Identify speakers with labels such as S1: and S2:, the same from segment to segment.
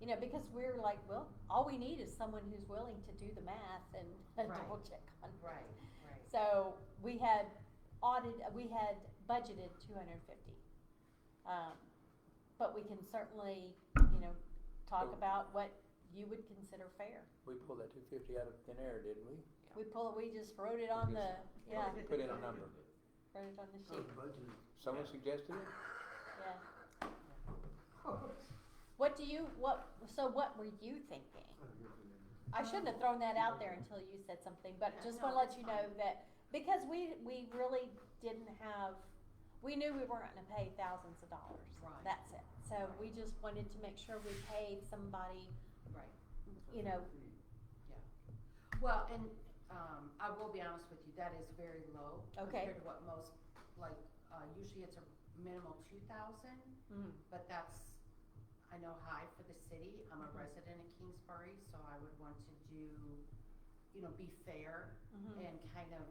S1: You know, because we're like, well, all we need is someone who's willing to do the math and and
S2: Right.
S1: double check on. it.
S2: Right, right.
S1: So we had audited, we had budgeted two hundred and fifty. Um, but we can certainly, you know, talk
S3: Well-
S1: about what you would consider fair.
S3: We pulled that two fifty out of thin air, didn't we?
S1: We pull, we just wrote it on the, yeah,
S3: We Put in a number.
S1: wrote it on the
S4: Oh,
S1: sheet,
S4: budget.
S3: Someone suggested it?
S1: yeah. What do you, what, so what were you thinking? I shouldn't have thrown that out there until you said something, but
S2: Yeah,
S1: just
S2: no,
S1: wanna let
S2: that's
S1: you know
S2: fine.
S1: that, because we, we really didn't have, we knew we weren't gonna pay thousands of dollars.
S2: Right.
S1: That's it, so we just wanted to make sure we paid somebody,
S2: Right,
S1: you know,
S2: yeah. Well, and, um, I will be honest with you, that is very low.
S1: Okay.
S2: Compared to what most, like, uh, usually it's a minimum two thousand,
S1: mm,
S2: but that's, I know high for the city. I'm a
S1: Mhm.
S2: resident of Kingsbury, so I would want to do, you know, be fair
S1: mhm.
S2: and kind of,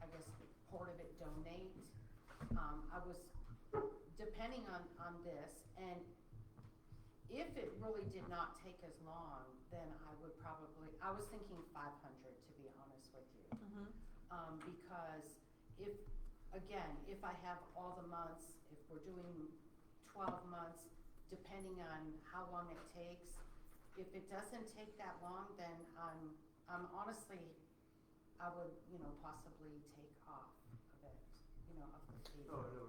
S2: I guess, part of it donate. Um, I was depending on, on this, and if it really did not take as long, then I would probably, I was thinking five hundred, to be honest with you.
S1: Mhm.
S2: Um, because if, again, if I have all the months, if we're doing twelve months, depending on how long it takes, if it doesn't take that long, then I'm, I'm honestly, I would, you know, possibly take off of it, you know, of the fee.
S4: Oh, no,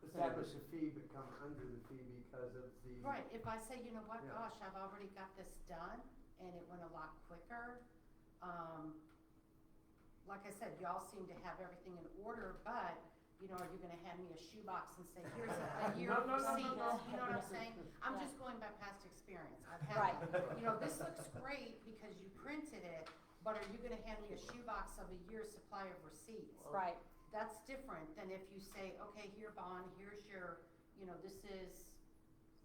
S4: establish a fee but come under the fee because of the.
S2: Right, if I say, you know what,
S4: Yeah.
S2: gosh, I've already got this done, and it went a lot quicker, um, like I said, y'all seem to have everything in order, but, you know, are you gonna hand me a shoebox and say, here's a year
S4: No,
S2: of
S4: no, no, no,
S2: receipts, you know
S1: no.
S2: what I'm saying? I'm
S1: Yeah.
S2: just going by past experience, I've
S1: Right.
S2: had, that. you know, this looks great because you printed it, but are you gonna hand me a shoebox of a year's supply of receipts?
S1: Right,
S2: that's different than if you say, okay, here, Bon, here's your, you know, this is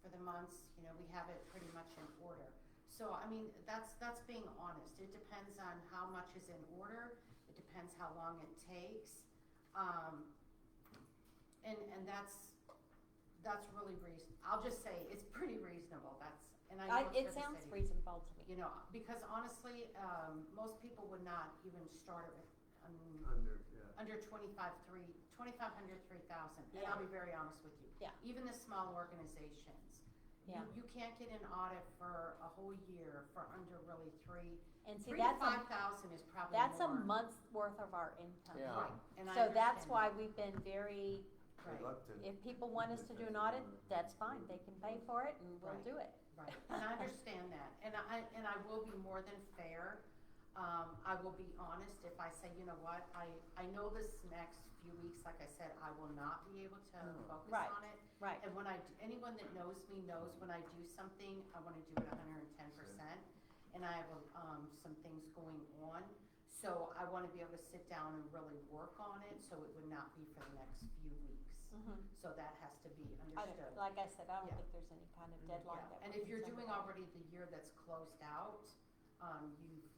S2: for the months, you know, we have it pretty much in order. So, I mean, that's, that's being honest. It depends on how much is in order. It depends how long it takes. Um, and, and that's, that's really reason, I'll just say, it's pretty reasonable. That's, and I
S1: I,
S2: know
S1: it
S2: it's for the
S1: sounds
S2: city.
S1: reasonable to me.
S2: You know, because honestly, um, most people would not even start it with, um,
S4: Under, yeah.
S2: under twenty-five, three, twenty-five hundred, three thousand, and
S1: Yeah.
S2: I'll be very honest with you.
S1: Yeah.
S2: Even the small organizations. you-
S1: Yeah.
S2: You can't get an audit for a whole year for under really three,
S1: And see,
S2: three to
S1: that's a,
S2: five thousand is probably more.
S1: that's a month's worth of our income.
S3: Yeah.
S2: Right, and I
S1: So that's
S2: understand
S1: why
S2: that.
S1: we've been very,
S2: Right,
S4: Reluctant.
S1: if people want us to do an audit, that's fine, they can pay for it and we'll
S2: Right.
S1: do it.
S2: right, and I understand that, and I, and I will be more than fair. Um, I will be honest if I say, you know what, I, I know this next few weeks, like I said, I will not be able to
S4: No.
S2: focus
S1: Mm. Right.
S2: on it.
S1: Right,
S2: And when I, d- anyone that knows me knows when I do something, I wanna do it hundred and ten percent. And I have, um, some things going on, so I wanna be able to sit down and really work on it, so it would not be for the next few weeks.
S1: mhm.
S2: So that has to be
S1: I don't-
S2: understood.
S1: Like I said, I don't
S2: Yeah. Mm-hmm.
S1: think there's any kind of deadline that.
S2: Yeah, And
S1: we're
S2: if you're
S1: concerned
S2: doing
S1: about.
S2: already the year that's closed out, um, you've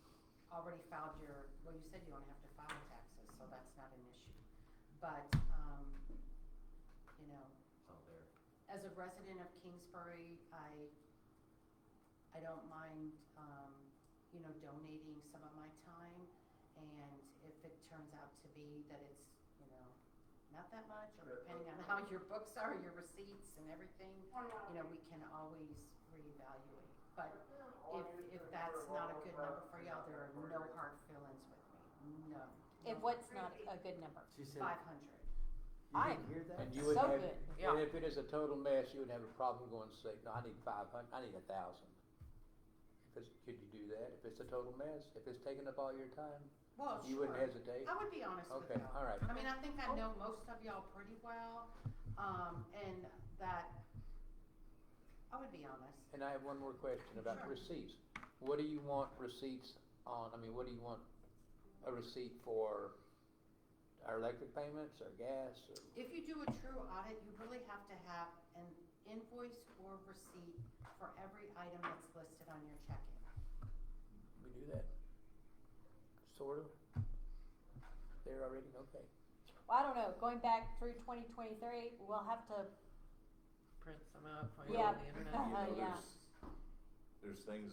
S2: already filed your, well, you said you don't have to file taxes, so that's not an issue. But, um, you know, as a resident of Kingsbury, I, I don't mind, um, you know, donating some of my time. And if it turns out to be that it's, you know, not that much, or depending on how your books are, your receipts and everything, you know, we can always reevaluate. But if, if that's not a good number for y'all, there are no hard feelings with me, no.
S1: If what's not a- a good number,
S4: She said,
S2: Five hundred,
S4: you
S1: I-
S4: didn't hear that?
S3: And you would
S1: so
S3: have,
S1: good,
S3: and if it is a total mess, you would have a problem going to say, no, I need five hundred. I need a thousand. If it's, could you do that? If it's a total mess, if it's taking up all your time,
S2: well, Oh, sure.
S3: you wouldn't hesitate?
S2: I would be honest with
S3: Okay,
S2: y'all.
S3: all right.
S2: I mean, I think I know most of y'all pretty well, um, and that, I would be honest.
S3: And I have one more question about
S2: Sure.
S3: receipts. What do you want receipts on, I mean, what do you want a receipt for? Our electric payments or gas or?
S2: If you do a true audit, you really have to have an invoice or receipt for every item that's listed on your checking.
S3: We do that. Sort of. They're already, okay.
S1: well, I don't know, going back through twenty twenty-three, we'll have to,
S5: print some out for you
S1: yeah,
S5: on the internet.
S1: yeah.
S6: there's things